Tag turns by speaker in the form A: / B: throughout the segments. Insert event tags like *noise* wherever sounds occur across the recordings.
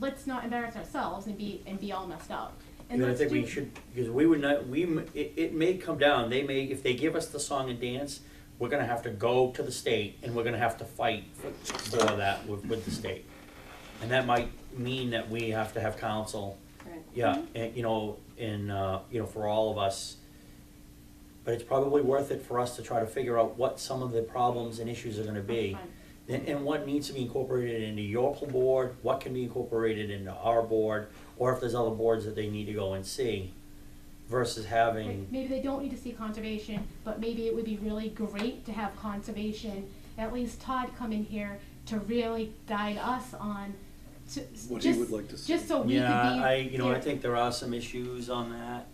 A: let's not embarrass ourselves and be, and be all messed up.
B: And I
A: let's
B: think we
A: do-
B: should, because we would not, we, m- it, it may come down, they may, if they give us the song and dance, we're gonna have to go to the state and we're gonna have to fight for that with, with the state. And that might mean that we have to have counsel,
C: Right.
B: yeah,
A: Mm-hmm.
B: and, you know, in, uh, you know, for all of us. But it's probably worth it for us to try to figure out what some of the problems and issues are gonna be.
A: Fine.
B: And, and what needs to be incorporated into your board, what can be incorporated into our board, or if there's other boards that they need to go and see, versus
A: Like,
B: having,
A: Maybe they don't need to see conservation, but maybe it would be really great to have conservation, at least Todd come in here to really guide us on, to,
D: What he would like to
A: just,
D: see.
A: just so we could be.
B: yeah, I, you know, I
A: yeah.
B: think there are some issues on that.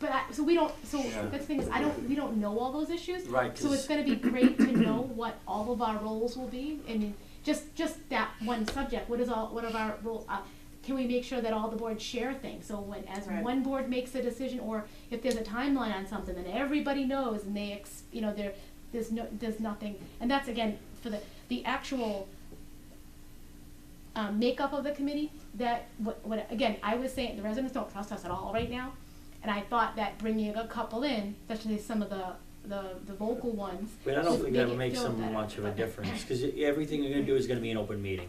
A: But I, so we don't, so
D: Yeah.
A: the thing is, I don't, we don't know all those issues.
B: Right,
A: So
B: 'cause-
A: it's gonna be great to know what all of our roles will be, I mean, just, just that one subject, what is all, what of our role, uh, can we make sure that all the boards share things, so when, as
C: Right.
A: one board makes a decision, or if there's a timeline on something, then everybody knows, and they ex, you know, there, there's no, there's nothing, and that's again, for the, the actual um, makeup of the committee, that, what, what, again, I was saying, the residents don't trust us at all right now, and I thought that bringing a couple in, especially some of the, the, the vocal ones.
B: But I don't
A: would
B: think that
A: it
B: would make
A: feel
B: so
A: better,
B: much of a
A: but-
B: difference, cause i- everything you're gonna do is gonna be an open meeting,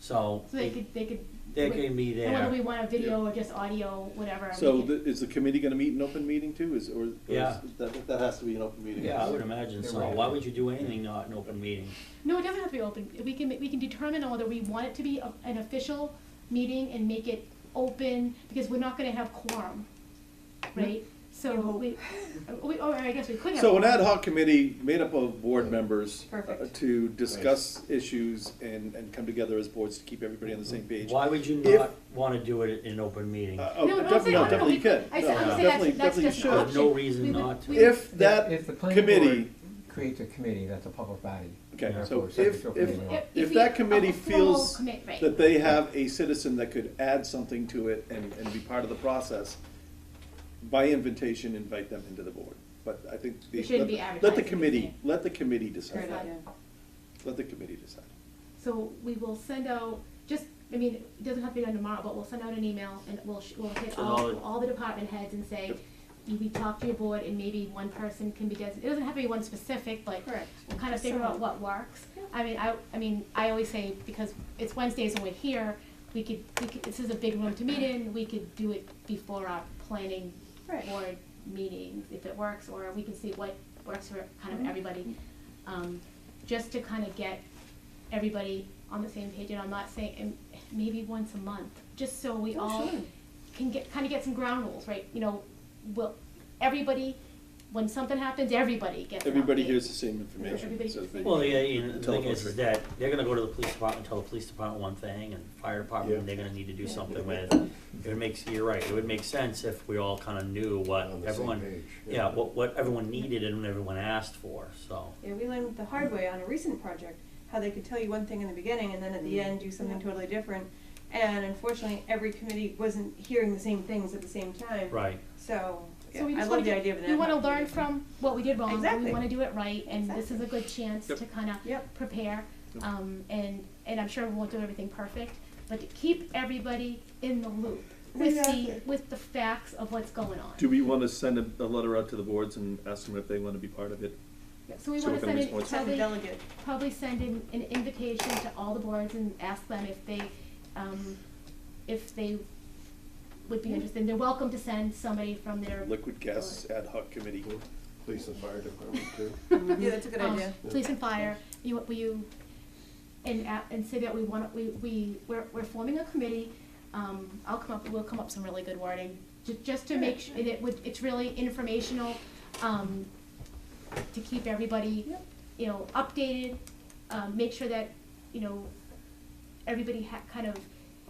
B: so.
A: *coughs* So they could, they could.
B: They can be
A: and Whether we
B: there,
A: want a video or just audio, whatever.
D: So
A: we could-
D: the, is the committee gonna meet in open meeting too, is, or? or is-
B: Yeah.
D: That, that has to be an open meeting.
B: yeah, I would imagine so, why would you do anything not an open meeting?
A: No, it doesn't have to be open, we can, we can determine whether we want it to be a- an official meeting and make it open, because we're not gonna have quorum, right? So we, we, or I guess we could have.
D: So an
A: quorum.
D: ad hoc committee made up of board members. uh,
C: Perfect.
D: To discuss issues and, and come together as boards to keep everybody on the same page.
B: Why would you
D: If-
B: not wanna do it in an open meeting?
D: Uh, oh,
A: No, no, I'm
D: definitely-
A: saying-
D: no,
A: oh, no, no,
D: definitely you
A: we-
D: could.
A: I
D: No,
A: said- I'm saying
D: definitely-
A: that's- that's
D: definitely you
A: just an
D: should.
A: option.
B: There's no reason
A: We would-
B: not to.
A: we would-
D: If
E: If the
D: that
E: planning
D: committee,
E: board creates a committee, that's a public body.
D: Okay,
E: Therefore,
D: so
E: subject
D: if-
E: to a
D: if-
E: planning law.
D: if
A: we-
D: that committee
A: a formal
D: feels
A: commit- right.
D: that they have a citizen that could add something to it and, and be part of the process, by invitation, invite them into the board. But I think. the-
A: It shouldn't be
D: let- Let
A: advertised,
D: the committee,
A: okay.
D: let the committee
C: Great
D: decide.
A: Right.
C: idea.
D: Let the committee decide.
A: So we will send out, just, I mean, it doesn't have to be done tomorrow, but we'll send out an email and we'll, sh- we'll hit
B: To all
A: all,
B: the-
A: all the department heads and say,
D: Yep.
A: "You- we talked to your board and maybe one person can be designated, it doesn't have to be one specific, but
C: Correct.
A: we'll kind of figure out what works.
C: Yeah.
A: I mean, I, I mean, I always say, because it's Wednesdays and we're here, we could, we could, this is a big room to meet in, we could do it before our planning
C: Right.
A: board meeting, if it works, or we can see what works for kind of
C: Mhm.
A: everybody. Um, just to kind of get everybody on the same page, and I'm not saying, and maybe once a month, just so we
C: Oh,
A: all
C: sure.
A: can get, kind of get some ground rules, right? You know, well, everybody, when something happens, everybody gets an
D: Everybody
A: update.
D: hears the same information.
A: Everybody-
D: so they-
B: Well, yeah, you know, the
D: Telephone
B: thing is, is
D: trick.
B: that they're gonna go to the police department, tell the police department one thing, and fire department,
D: Yeah.
B: they're gonna need to do
A: Yeah.
B: something with. It would makes, you're right, it would make sense if we all kinda knew what
F: On the same
B: everyone,
F: page,
B: yeah,
F: yeah.
B: what, what everyone needed and what everyone asked for, so.
C: Yeah, we learned the hard way on a recent project, how they could tell you one thing in the beginning and then at
A: Mm-hmm.
C: the end do something totally different. And unfortunately, every committee wasn't hearing the same things at the same time.
B: Right,
C: So, yeah,
A: So we
C: I
A: just
C: love
A: wanna
C: the
A: do-
C: idea of an ad
A: We wanna
C: hoc
A: learn
C: committee.
A: from what we did wrong, and we
C: Exactly.
A: wanna do it right, and this is a good chance to
D: Yep.
A: kinda
C: Yep.
A: prepare.
D: Yep.
A: Um, and, and I'm sure we won't do everything perfect, but to keep everybody in the loop with the,
C: Exactly.
A: with the facts of what's going on.
D: Do we wanna send a, a letter out to the boards and ask them if they wanna be part of it?
A: So we
D: so
A: wanna
D: we're gonna
A: send
D: be
A: it,
D: responsible.
C: Have a
A: probably,
C: delegate.
A: *laughs* probably send in an invitation to all the boards and ask them if they, um, if they would be interested. They're welcome to send somebody from their.
D: Liquid gas ad hoc committee.
F: Police and fire department too.
C: Yeah, that's a good
A: um,
C: idea.
A: Police and fire, you, will you, and, a- and say that we want, we, we, we're, we're forming a committee, um, I'll come up, we'll come up with some really good wording, ju- just to make, su- and it would, it's really informational, um, to keep everybody,
C: Yep.
A: you know, updated, um, make sure that, you know, everybody ha- kind of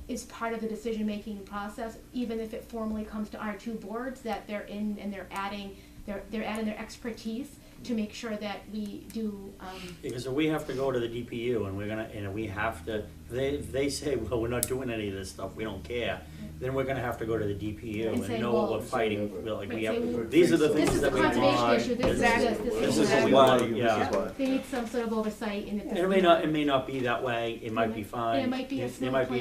A: is part of the decision-making process, even if it formally comes to our two boards, that they're in and they're adding, they're, they're adding their expertise to make sure that we do, um,
B: because we have to go to the DPU and we're gonna, and we have to, they, if they say, *laughs* well, we're not doing any of this stuff, we don't care, then we're gonna have to go to the
A: And
B: DPU
A: say,
B: and know what
A: well-
B: we're fighting, we're like, we have,
A: Right, say,
B: these are the
F: well,
A: this is
B: things
A: the
B: that we want.
A: conservation issue, this is
C: Exactly.
A: this, this
B: This
A: is
B: is
A: that.
B: what we
D: why,
B: want, yeah.
A: They need some sort of oversight in it.
B: And it may not, it may not be that way, it might be fine.
A: might be a
B: There might
A: snow
B: be